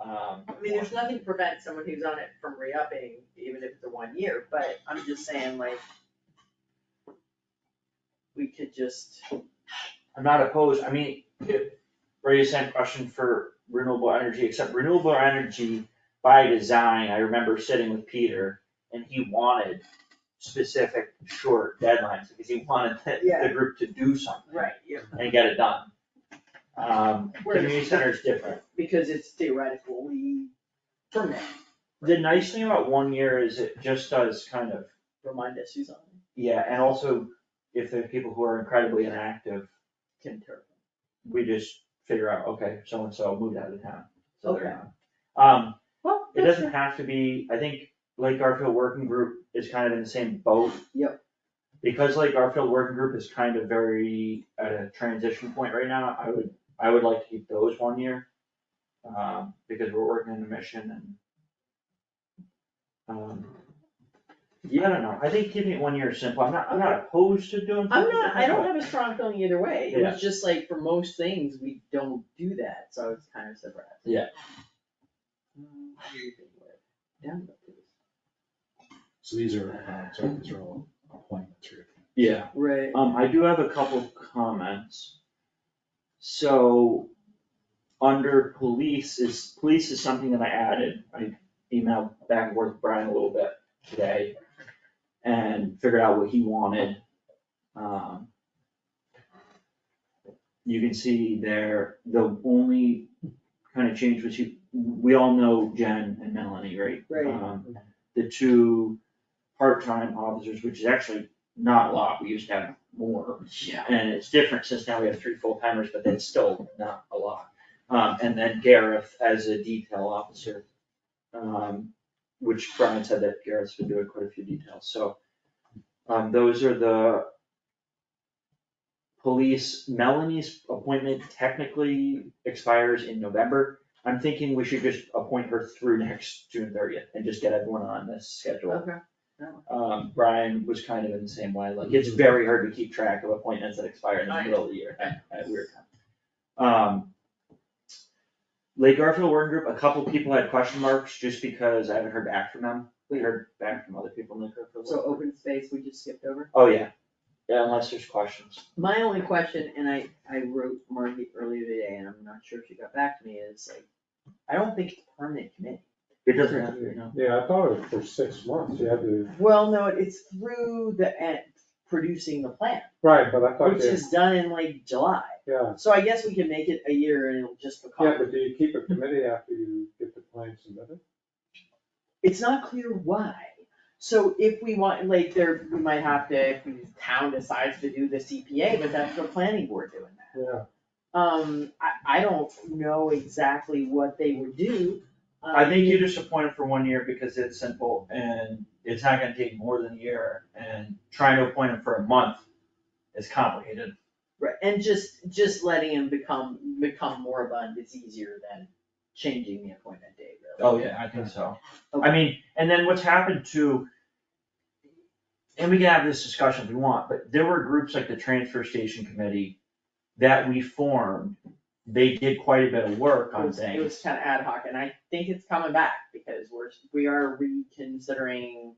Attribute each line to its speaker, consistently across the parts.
Speaker 1: Um,
Speaker 2: I mean, there's nothing to prevent someone who's on it from re-upping, even if it's a one year, but I'm just saying like. We could just,
Speaker 1: I'm not opposed, I mean, if, raise a same question for renewable energy, except renewable energy by design, I remember sitting with Peter and he wanted specific short deadlines, because he wanted the, the
Speaker 2: Yeah.
Speaker 1: group to do something
Speaker 2: right, yeah,
Speaker 1: and get it done. Um,
Speaker 2: Whereas-
Speaker 1: community center is different.
Speaker 2: because it's theoretical, we permit,
Speaker 1: The nice thing about one year is it just does kind of,
Speaker 2: remind us who's on, it,
Speaker 1: yeah, and also if there are people who are incredibly inactive,
Speaker 2: can turn.
Speaker 1: we just figure out, okay, so and so moved out of town, so they're
Speaker 2: Okay.
Speaker 1: not. Um,
Speaker 2: Well,
Speaker 1: it doesn't have to be, I think Lake Garfield Working Group is kind of in the same boat.
Speaker 2: Yep.
Speaker 1: Because Lake Garfield Working Group is kind of very at a transition point right now, I would, I would like to keep those one year. Um, because we're working on a mission and. Um, yeah, I don't know, I think keeping it one year is simple, I'm not, I'm not opposed to doing.
Speaker 2: I'm not, I don't have a strong feeling either way, it
Speaker 1: Yeah.
Speaker 2: was just like for most things, we don't do that, so I was kind of surprised.
Speaker 1: Yeah.
Speaker 2: Um, what do you think, Lloyd? Down about this.
Speaker 3: So these are, uh, sorry, these are all appointments, right?
Speaker 1: Yeah,
Speaker 2: Right.
Speaker 1: Um, I do have a couple comments. So, under police is, police is something that I added, I emailed back and forth with Brian a little bit today. And figured out what he wanted. Um. You can see there, the only kind of change was you, we all know Jen and Melanie, right?
Speaker 2: Right.
Speaker 1: Um, The two part-time officers, which is actually not a lot, we used to have more.
Speaker 2: Yeah.
Speaker 1: And it's different since now we have three full-timers, but that's still not a lot. Um, and then Gareth as a detail officer. Um, which Brian said that Gareth's been doing quite a few details, so. Um, those are the. Police, Melanie's appointment technically expires in November. I'm thinking we should just appoint her through next June thirtieth and just get everyone on this schedule
Speaker 2: Okay.
Speaker 1: um, Brian was kind of in the same way, like, it's very hard to keep track of appointments that expire in the
Speaker 2: Right.
Speaker 1: middle of the year at, at weird times. Um. Lake Garfield Working Group, a couple people had question marks just because I haven't heard back from them, we heard back from other people in the group. for a
Speaker 2: So
Speaker 1: little-
Speaker 2: open space, we just skipped over.
Speaker 1: Oh, yeah, yeah, unless there's questions.
Speaker 2: My only question, and I, I wrote Margie earlier today, and I'm not sure if she got back to me, is like, I don't think it's a permanent committee.
Speaker 1: It doesn't have to be, no.
Speaker 4: Yeah, I thought it was for six months, you had to,
Speaker 2: Well, no, it's through the, end producing the plan,
Speaker 4: right, but I thought
Speaker 2: which
Speaker 4: they,
Speaker 2: is done in like July.
Speaker 4: yeah,
Speaker 2: So I guess we can make it a year and it'll just
Speaker 4: yeah,
Speaker 2: become,
Speaker 4: but do you keep a committee after you get the plan submitted?
Speaker 2: it's not clear why. So if we want, like, there, we might have to, if the town decides to do the CPA, but that's the planning board doing that.
Speaker 4: Yeah,
Speaker 2: Um, I, I don't know exactly what they would do. Um,
Speaker 1: I think you just appoint them for one year because it's simple and it's not gonna take more than a year, and trying to appoint them for a month is complicated.
Speaker 2: Right, and just, just letting him become, become moribund is easier than changing the appointment date, really.
Speaker 1: Oh, yeah, I think so. I mean, and then what's happened to, and we can have this discussion if we want, but there were groups like the Transfer Station Committee that we formed. They did quite a bit of work
Speaker 2: It
Speaker 1: on
Speaker 2: was, it
Speaker 1: things.
Speaker 2: was kinda ad hoc, and I think it's coming back, because we're, we are reconsidering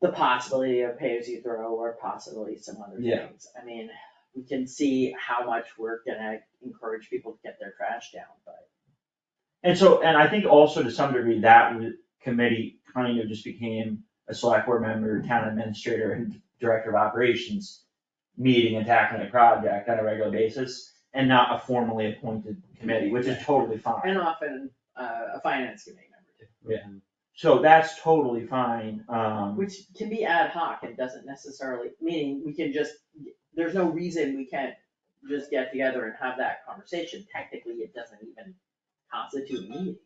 Speaker 2: the possibility of pay as you throw, or possibly some other
Speaker 1: Yeah.
Speaker 2: things. I mean, we can see how much we're gonna encourage people to get their trash down, but,
Speaker 1: And so, and I think also to some degree, that w- committee kind of just became a select board member, town administrator, and director of operations meeting and tackling a project on a regular basis, and not a formally appointed committee, which is totally fine.
Speaker 2: and often, uh, a finance committee member too.
Speaker 1: So that's totally fine, um.
Speaker 2: Which can be ad hoc and doesn't necessarily, meaning we can just, there's no reason we can't just get together and have that conversation. Technically, it doesn't even constitute a meeting.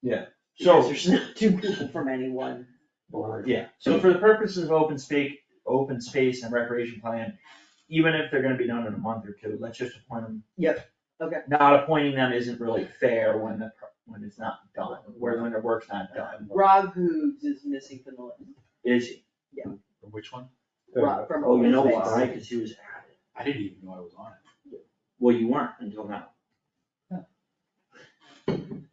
Speaker 1: Yeah.
Speaker 2: Because
Speaker 1: So-
Speaker 2: there's not two people from anyone.
Speaker 4: or,
Speaker 1: Yeah, so for the purposes of open space, open space and recreation plan, even if they're gonna be done in a month or two, let's just appoint them.
Speaker 2: Yep, okay.
Speaker 1: Not appointing them isn't really fair when the, pro- when it's not done, where when the work's not done,
Speaker 2: Rob Hoogs is missing from the list.
Speaker 1: is,
Speaker 3: Which one?
Speaker 2: Rob from
Speaker 1: oh, you know
Speaker 2: Open Space.
Speaker 1: why, cause he was added,
Speaker 3: I didn't even know I was on it.
Speaker 1: well, you weren't until now.